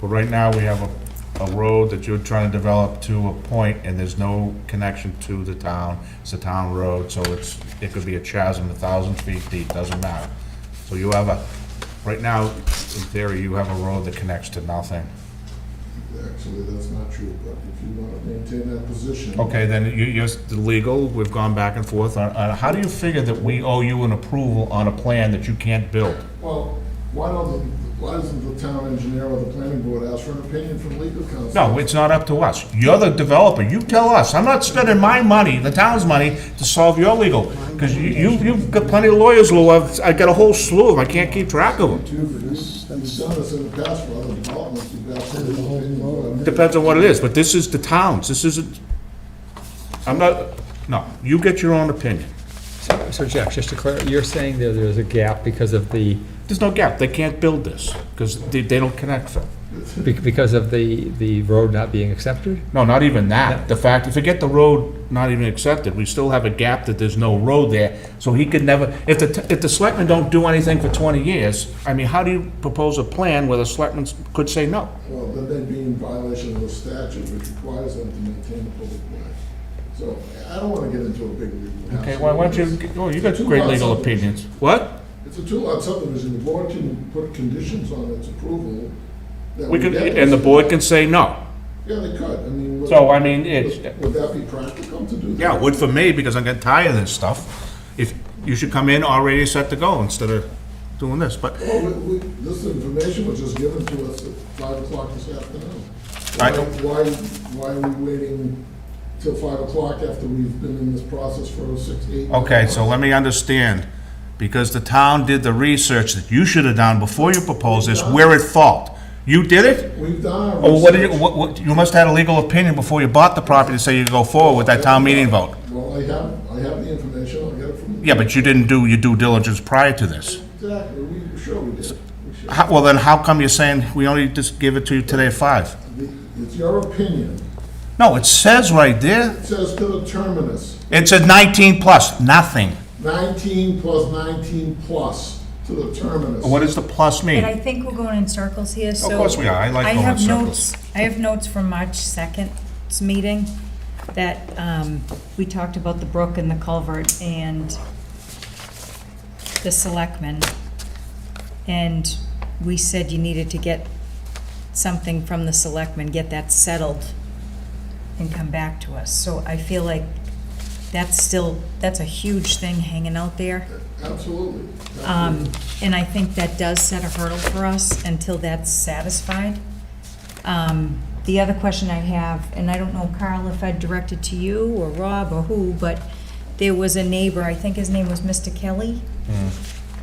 But right now, we have a, a road that you're trying to develop to a point, and there's no connection to the town. It's a town road, so it's, it could be a chasm a thousand feet deep, doesn't matter. So you have a, right now, in theory, you have a road that connects to nothing. Actually, that's not true, but if you want to maintain that position. Okay, then you, you're the legal, we've gone back and forth on, on, how do you figure that we owe you an approval on a plan that you can't build? Well, why don't, the- why doesn't the town engineer or the planning board ask for an opinion from legal counsel? No, it's not up to us. You're the developer. You tell us. I'm not spending my money, the town's money, to solve your legal. Because you, you- you've got plenty of lawyers, Lou. I've, I've got a whole slew of them. I can't keep track of them. You've you've done this in the past for other developments, you've asked for an opinion. but- Depends on what it is, but this is the town's. This isn't, I'm not, no, you get your own opinion. So- So Jack, just to clarify, you're saying there, there's a gap because of the, There's no gap. They can't build this because they, they don't connect them. be- because of the, the road not being accepted? No, not even that. The fact, forget the road not even accepted, we still have a gap that there's no road there, so he could never, if the, t- if the selectmen don't do anything for twenty years, I mean, how do you propose a plan where the selectmen could say no? Well, then they'd be in violation of the statute which requires them to maintain the public way. So I don't want to get into a big legal. Okay, why why don't you, oh, you got great legal opinions. What? It's a two-lot subdivision, the board can put conditions on its approval. that We could, get and the this. board can say no. Yeah, they could, I mean. would- So, I mean, it's- Would would that be practical to do that? Yeah, it would for me, because I'm getting tired of this stuff. If, you should come in already set to go instead of doing this, but Well, we- we- This information was just given to us at five o'clock this afternoon. I- Why, why why are we waiting till five o'clock after we've been in this process for oh six, eight? Okay, so let me understand, because the town did the research that you should have done before you proposed this, we're at fault. You did it? We've done our. Or what did you, research. what, what, you must have had a legal opinion before you bought the property to say you go forward with that town meeting vote. Well, I have, I have the information, I'll get it from. the- Yeah, but you didn't do your due diligence prior to this. Exactly, we, sure we did. We sure- How, well, then how come you're saying we only just give it to you today at five? the- It's your opinion. No, it says right there, It says to the terminus, it says nineteen plus, nothing. nineteen plus nineteen plus to the terminus. What does the plus But I mean? think we're going in circles here, so. course we are. I like going in have circles. notes- I have notes from March 2nd's meeting that um, we talked about the brook and the culvert and the selectmen. And we said you needed to get something from the selectmen, get that settled and come back to us. So I feel like that's still, that's a huge thing hanging out there. Absolutely. Um, And I think that does set a hurdle for us until that's satisfied. Um, The other question I have, and I don't know, Carl, if I directed to you or Rob or who, but there was a neighbor, I think his name was Mr. Kelly,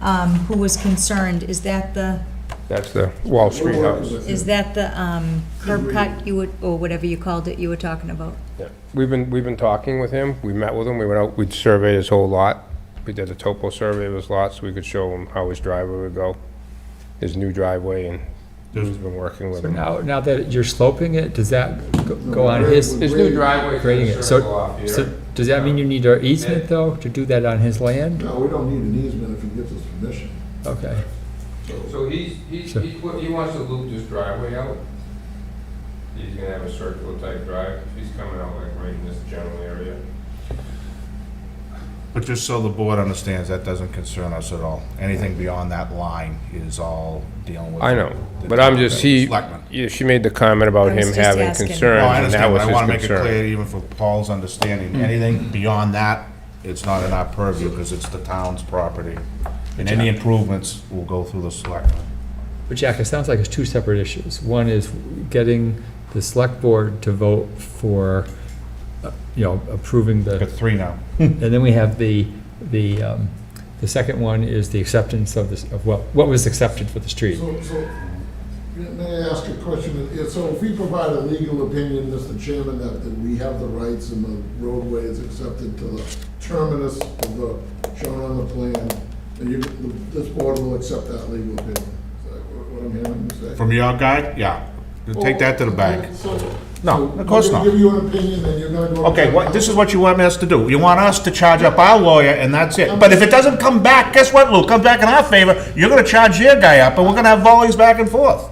um, who was concerned, is that the, That's the Wall We're Street working house. with is you. that the um, curb cut you would, or whatever you called it, you were talking about? Yeah. We've been, we've been talking with him, we met with him, we went out, we surveyed his whole lot. We did a topo survey of his lot, so we could show him how his driveway would go, his new driveway, and he's been working with So him. now, now that you're sloping it, does that go- go on his, His new driveway creating it? So, so does that mean you need our easement though, to do that on his land? No, we don't need an easement if he gives us permission. Okay, So he's, he's, Sure. he wa- he wants to loop this driveway out. He's gonna have a circular type drive, he's coming out like right in this general area. But just so the board understands, that doesn't concern us at all. Anything beyond that line is all dealing with. I know, the- but I'm just, he, Selectmen. yeah, she made the comment I about was him just having asking. concerns, No, I and understand, that but was I his want to make it concern. clear, Mm. even for Paul's understanding, anything beyond that, it's not in our purview, because it's the town's property. And any improvements will go through the selectmen. but Jack, it sounds like it's two separate issues. One is getting the select board to vote for, uh, you know, approving the We've got three now. And then we have the, the, um, the second one is the acceptance of this, of what, what was accepted for the street. So, so, may I ask a question? Yeah, So if we provide a legal opinion, Mr. Chairman, that, that we have the rights and the roadway is accepted to the terminus of the, shown on the plan, and you, this board will accept that legal opinion. Is that what what I'm hearing you say? From your guy, yeah, take that to the bank. So- No, so of course we're gonna not. Give you an opinion, then you're gonna go. to Okay, the- what, this is what you want us to do. You want us to charge up our lawyer, and that's it. But if it doesn't come back, guess what, Lou? Comes back in our favor, you're gonna charge your guy up, and we're gonna have volleys back and forth.